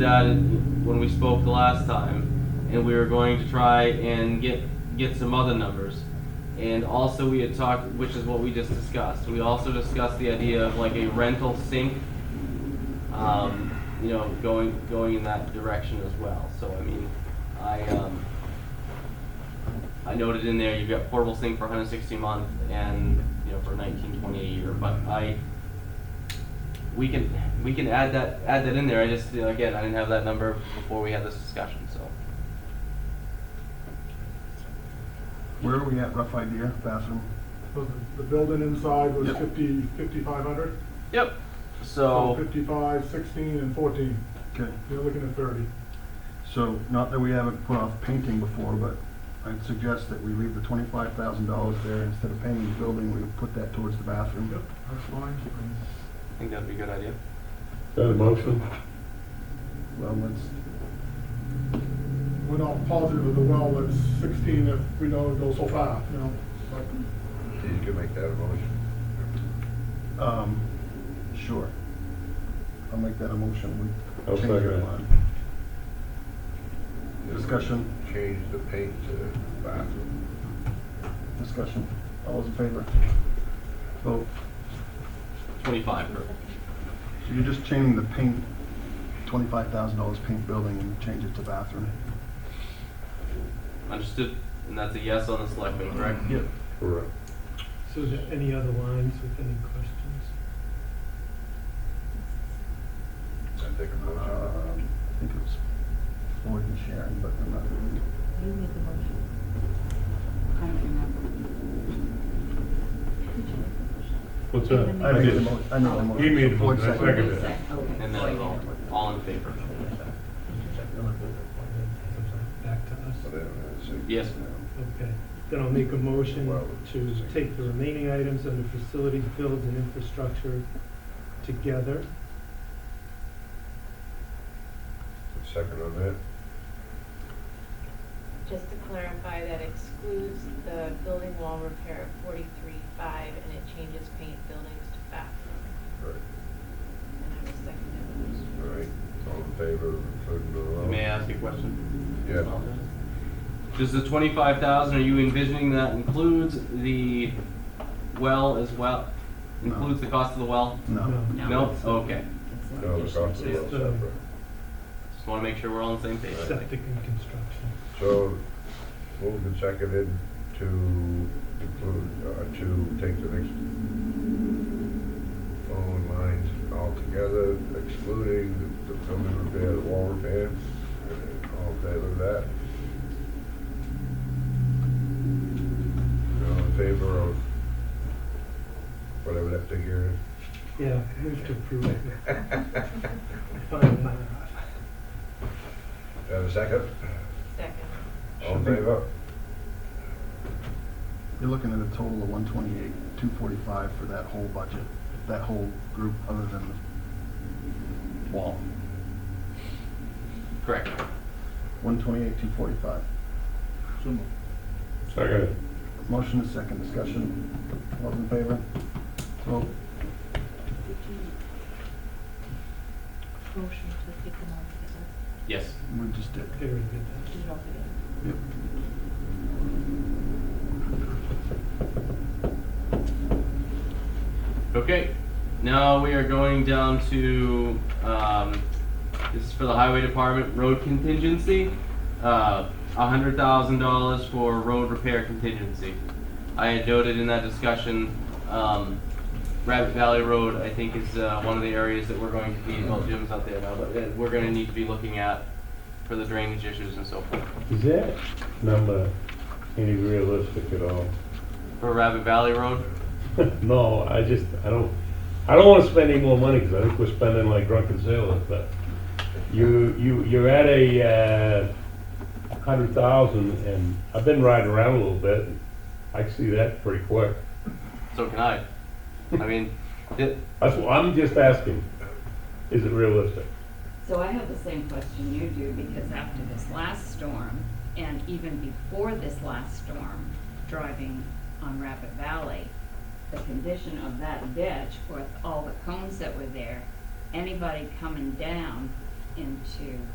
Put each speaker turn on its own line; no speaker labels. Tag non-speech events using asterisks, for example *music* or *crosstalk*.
that when we spoke the last time, and we were going to try and get, get some other numbers. And also we had talked, which is what we just discussed, we also discussed the idea of like a rental sink, um, you know, going, going in that direction as well, so I mean, I, um, I noted in there, you've got portable sink for hundred sixty month and, you know, for nineteen twenty a year, but I, we can, we can add that, add that in there, I just, you know, again, I didn't have that number before we had this discussion, so.
Where are we at, rough idea, bathroom?
So the- the building inside was
Yep.
fifty, fifty-five hundred?
Yep, so,
Fifty-five, sixteen, and fourteen,
Okay,
you're looking at thirty.
so not that we haven't put off painting before, but I'd suggest that we leave the twenty-five thousand dollars there. Instead of painting the building, we put that towards the
Yep,
bathroom.
that's fine.
I think that'd be a good idea.
Got a motion?
Well, let's,
We're not positive of the well, that's sixteen if we know it goes so far, you know? but-
You can make that a motion.
um, sure. I'll make that a motion. We
I'll
change our
second it.
mind. Discussion,
Change the paint to bathroom.
discussion. All those in favor? Vote.
Twenty-five for,
So you're just changing the paint, twenty-five thousand dollars paint building and change it to bathroom?
understood, and that's a yes on the selectmen, correct?
Yep.
Correct.
So is there any other lines with any questions?
I think a
Um,
Uh,
I think it was Floyd and Sharon, but I'm not really.
You made the motion. I don't remember. Did you make the motion?
What's
And
that?
then
I made the
did.
motion, I made the motion.
He made the
Floyd
motion, I
seconded
seconded it.
Second, okay.
And then
so you
all,
made it.
all in favor?
Back to us.
motion.
Yes.
Okay. Then I'll make a motion
Well,
to take the remaining items under facilities, builds, and infrastructure together.
Second on that?
Just to clarify, that excludes the building wall repair of forty-three five, and it changes paint buildings to bathroom.
Right.
And I will second
All right, all in favor of including the low?
May I ask you a question?
Yeah.
Does the twenty-five thousand, are you envisioning that includes the well as well?
No.
Includes the cost of the well?
No.
No.
No? Okay,
It's not.
No, the cost of the well separate.
just wanna make sure we're all on the same page.
Septic and construction.
So, moved and seconded to include, uh, to take the next phone lines altogether, excluding the the building repair, the wall repair, and all in favor of that. All in favor of whatever that figure
Yeah, move to approve it.
is. *laughs*
Fine, uh,
Have a second?
this. Second.
All in favor?
You're looking at a total of one twenty-eight, two forty-five for that whole budget, that whole group, other than the wall.
Correct.
One twenty-eight, two forty-five.
Second.
Motion is second, discussion. All those in favor? Vote.
Did you motion to take them all together?
Yes.
We just did.
Very good.
Did it all together?
Yep.
Okay, now we are going down to, um, this is for the highway department, road contingency. Uh, a hundred thousand dollars for road repair contingency. I had noted in that discussion, um, Rabbit Valley Road, I think is, uh, one of the areas that we're going to be, well, Jim's out there now, but that we're gonna need to be looking at for the drainage issues and so forth.
Is that number any realistic at all? *laughs*
For Rabbit Valley Road,
No, I just, I don't, I don't wanna spend any more money, cause I think we're spending like drunken sailors, but you, you, you're at a, uh, hundred thousand, and I've been riding around a little bit, I can see that pretty quick.
so can I. I mean, it,
That's, why I'm just asking, is it realistic?
So I have the same question you do, because after this last storm, and even before this last storm, driving on Rapid Valley, the condition of that ditch with all the cones that were there, anybody coming down into